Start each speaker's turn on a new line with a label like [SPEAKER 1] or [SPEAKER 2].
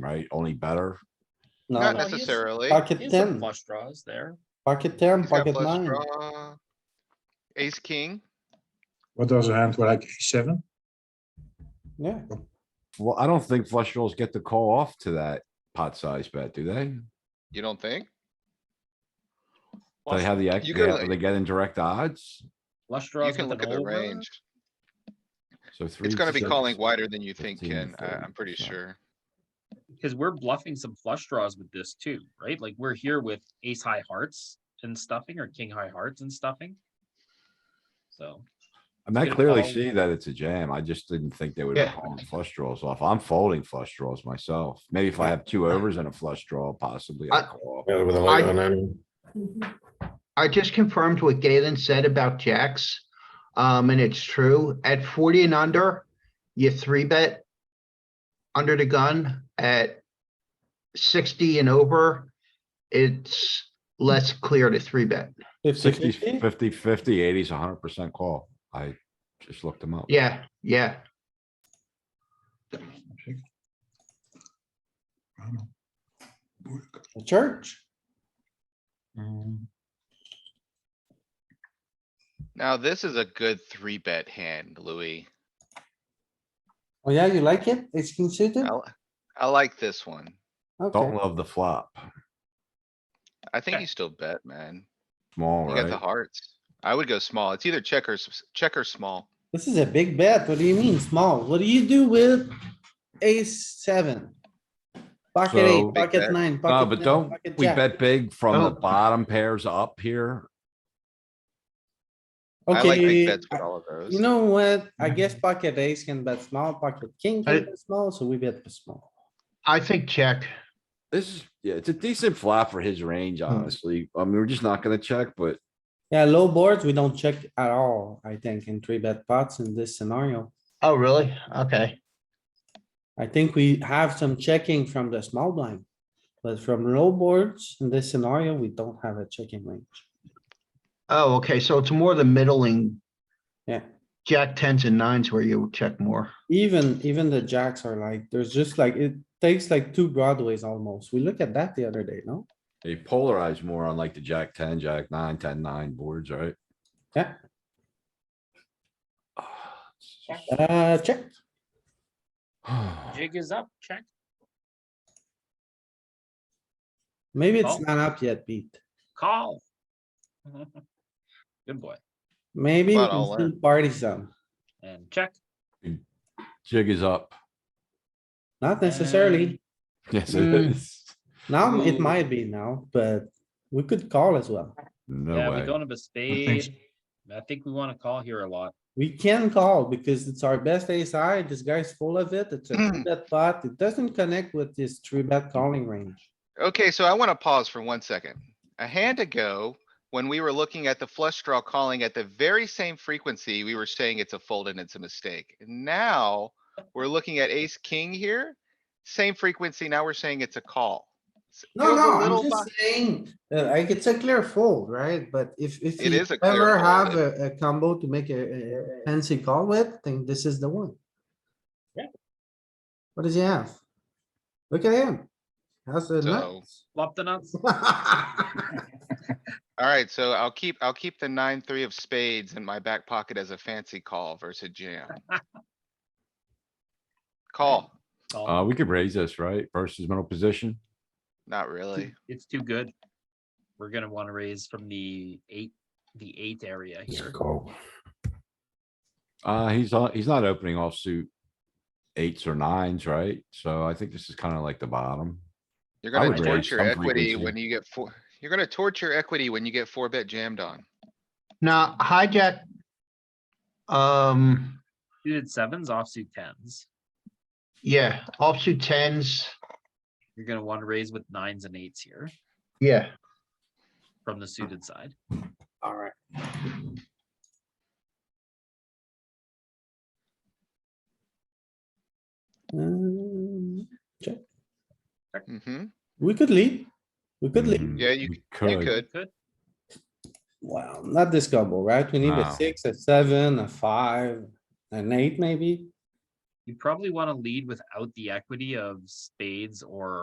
[SPEAKER 1] right? Only better.
[SPEAKER 2] No,
[SPEAKER 3] Not
[SPEAKER 2] no.
[SPEAKER 4] he's-
[SPEAKER 3] necessarily.
[SPEAKER 2] Pocket
[SPEAKER 4] He's some
[SPEAKER 2] ten,
[SPEAKER 4] flush draws there.
[SPEAKER 2] pocket ten,
[SPEAKER 3] He's got
[SPEAKER 2] pocket
[SPEAKER 3] flush
[SPEAKER 2] nine.
[SPEAKER 3] draw. Ace, king.
[SPEAKER 5] What does a hand like ace seven?
[SPEAKER 2] Yeah,
[SPEAKER 1] Well, I don't think flush draws get to call off to that pot size bet, do they?
[SPEAKER 3] You don't think?
[SPEAKER 1] They have the, ex-
[SPEAKER 3] you
[SPEAKER 1] they
[SPEAKER 3] go
[SPEAKER 1] have-
[SPEAKER 3] like-
[SPEAKER 1] they get in direct odds,
[SPEAKER 4] Flush
[SPEAKER 3] You
[SPEAKER 4] draws
[SPEAKER 3] can
[SPEAKER 4] with
[SPEAKER 3] look
[SPEAKER 4] an
[SPEAKER 3] at the
[SPEAKER 4] over.
[SPEAKER 3] range.
[SPEAKER 1] so three.
[SPEAKER 3] It's gonna be
[SPEAKER 1] six,
[SPEAKER 3] calling wider than you think,
[SPEAKER 1] 15,
[SPEAKER 3] Ken. I,
[SPEAKER 1] 30,
[SPEAKER 3] I'm pretty
[SPEAKER 1] yeah.
[SPEAKER 3] sure.
[SPEAKER 4] Cause we're bluffing some flush draws with this too, right? Like we're here with ace high hearts and stuffing or king high hearts and stuffing. So,
[SPEAKER 1] I mean, I
[SPEAKER 4] gonna
[SPEAKER 1] clearly
[SPEAKER 4] call-
[SPEAKER 1] see that it's a jam. I just didn't think they would be
[SPEAKER 3] Yeah.
[SPEAKER 1] calling flush draws off. I'm folding flush draws myself. Maybe if I have two overs and a flush draw possibly. I'll
[SPEAKER 6] I-
[SPEAKER 1] call off.
[SPEAKER 5] Yeah, with a
[SPEAKER 6] I-
[SPEAKER 5] light on anyway.
[SPEAKER 6] I just confirmed what Galen said about jacks. Um, and it's true. At forty and under, you three bet under the gun at sixty and over, it's less clear to three bet.
[SPEAKER 2] fifty,
[SPEAKER 1] 60,
[SPEAKER 2] fifty.
[SPEAKER 1] 50, 50, 80 is hundred percent call. I just looked them up.
[SPEAKER 6] Yeah, yeah.
[SPEAKER 5] Ah,
[SPEAKER 2] Church,
[SPEAKER 3] Now, this is a good three bet hand, Louis.
[SPEAKER 2] oh yeah, you like it? It's considered?
[SPEAKER 3] I, li- I like this one.
[SPEAKER 1] Don't
[SPEAKER 2] Okay,
[SPEAKER 1] love the flop.
[SPEAKER 3] I think
[SPEAKER 4] Okay.
[SPEAKER 3] you still bet, man.
[SPEAKER 1] Small,
[SPEAKER 3] You got the
[SPEAKER 1] right?
[SPEAKER 3] hearts. I would go small. It's either check or, s- check or small.
[SPEAKER 2] this is a big bet. What do you mean small? What do you do with ace seven? Pocket
[SPEAKER 1] So-
[SPEAKER 2] eight,
[SPEAKER 1] Big
[SPEAKER 2] pocket
[SPEAKER 3] bet.
[SPEAKER 2] nine,
[SPEAKER 1] No,
[SPEAKER 2] pocket
[SPEAKER 1] but
[SPEAKER 2] ten,
[SPEAKER 1] don't,
[SPEAKER 2] pocket
[SPEAKER 1] we
[SPEAKER 2] jack.
[SPEAKER 1] bet big from the
[SPEAKER 6] No.
[SPEAKER 1] bottom pairs up here.
[SPEAKER 3] I like big
[SPEAKER 2] Okay,
[SPEAKER 3] bets with all of those.
[SPEAKER 2] you know what? I
[SPEAKER 1] Mm-hmm.
[SPEAKER 2] guess pocket ace can bet small, pocket king
[SPEAKER 6] I-
[SPEAKER 2] can bet small, so we bet small.
[SPEAKER 6] I think check.
[SPEAKER 1] This is, yeah, it's a decent flop for his
[SPEAKER 2] Hmm.
[SPEAKER 1] range, honestly. I mean, we're just not gonna check, but
[SPEAKER 2] Yeah, low boards, we don't check at all, I think, in three bet pots in this scenario.
[SPEAKER 6] Oh, really? Okay.
[SPEAKER 2] I think we have some checking from the small blind. But from low boards in this scenario, we don't have a checking range.
[SPEAKER 6] Oh, okay. So it's more the middling.
[SPEAKER 2] Yeah.
[SPEAKER 6] Jack tens and nines where you check more.
[SPEAKER 2] Even, even the jacks are like, there's just like, it takes like two broadways almost. We looked at that the other day, no?
[SPEAKER 1] they polarize more on like the jack ten, jack nine, ten, nine boards, right?
[SPEAKER 2] Yeah.
[SPEAKER 1] Ah,
[SPEAKER 2] Uh, check.
[SPEAKER 4] jig is up, check.
[SPEAKER 2] Maybe it's
[SPEAKER 4] Oh.
[SPEAKER 2] not up yet, Pete.
[SPEAKER 4] Call. Good boy.
[SPEAKER 2] Maybe we
[SPEAKER 3] But
[SPEAKER 2] can
[SPEAKER 3] I'll
[SPEAKER 2] still party some.
[SPEAKER 4] And check.
[SPEAKER 1] Jig is up.
[SPEAKER 2] Not necessarily.
[SPEAKER 1] Yes, it
[SPEAKER 4] Hmm.
[SPEAKER 6] Mm.
[SPEAKER 1] is.
[SPEAKER 2] Now, it
[SPEAKER 4] Ooh.
[SPEAKER 2] might be now, but we could call as well.
[SPEAKER 1] No
[SPEAKER 4] Yeah, we
[SPEAKER 1] way.
[SPEAKER 4] don't have a
[SPEAKER 5] think so.
[SPEAKER 4] spade. I think we wanna call here a lot.
[SPEAKER 2] We can call because it's our best ace high. This guy's full of it. It's a three bet pot. It doesn't connect with this three bet calling range.
[SPEAKER 3] Okay, so I wanna pause for one second. A hand ago, when we were looking at the flush draw calling at the very same frequency, we were saying it's a fold and it's a mistake. Now, we're looking at ace, king here, same frequency, now we're saying it's a call. S-
[SPEAKER 2] No,
[SPEAKER 3] feels a
[SPEAKER 2] no,
[SPEAKER 3] little
[SPEAKER 2] I'm just
[SPEAKER 3] bi-
[SPEAKER 2] saying, uh, like, it's a clear fold, right? But if, if
[SPEAKER 3] It
[SPEAKER 2] you
[SPEAKER 3] is a clear
[SPEAKER 2] ever
[SPEAKER 3] fold,
[SPEAKER 2] have a,
[SPEAKER 3] it-
[SPEAKER 2] a combo to make a, a- a fancy call with, then this is the one.
[SPEAKER 4] Yeah.
[SPEAKER 2] What does he have? Look at him. How's the
[SPEAKER 3] So-
[SPEAKER 2] nuts?
[SPEAKER 4] Flop the nuts.
[SPEAKER 2] Uh,
[SPEAKER 3] Alright, so I'll keep, I'll keep the nine, three of spades in my back pocket as a fancy call versus jam. Call,
[SPEAKER 4] Call.
[SPEAKER 1] Uh, we could raise this, right? Versus middle position.
[SPEAKER 3] not
[SPEAKER 4] too-
[SPEAKER 3] really.
[SPEAKER 4] It's too good. We're gonna wanna raise from the eight, the eight area here.
[SPEAKER 1] Uh, he's, not- he's not opening offsuit eights or nines, right? So I think this is kinda like the bottom.
[SPEAKER 3] You're
[SPEAKER 1] I
[SPEAKER 3] gonna
[SPEAKER 1] would raise
[SPEAKER 3] torture
[SPEAKER 1] some
[SPEAKER 3] equity
[SPEAKER 1] frequency.
[SPEAKER 3] when you get four, you're gonna torture equity when you get four bet jammed on.
[SPEAKER 6] Now hijack. Um,
[SPEAKER 4] Suited sevens, offsuit tens.
[SPEAKER 6] yeah, offsuit tens.
[SPEAKER 4] You're gonna wanna raise with nines and eights here
[SPEAKER 6] Yeah.
[SPEAKER 4] from the suited side.
[SPEAKER 2] Alright.
[SPEAKER 3] hmm
[SPEAKER 2] we could lead. We could lead.
[SPEAKER 1] Mhm,
[SPEAKER 3] Yeah, you-
[SPEAKER 1] we
[SPEAKER 3] you could.
[SPEAKER 4] Good.
[SPEAKER 2] Well, not this combo, right? We need a
[SPEAKER 1] No.
[SPEAKER 2] six, a seven, a five, an eight maybe.
[SPEAKER 4] you probably want to lead without the equity of spades or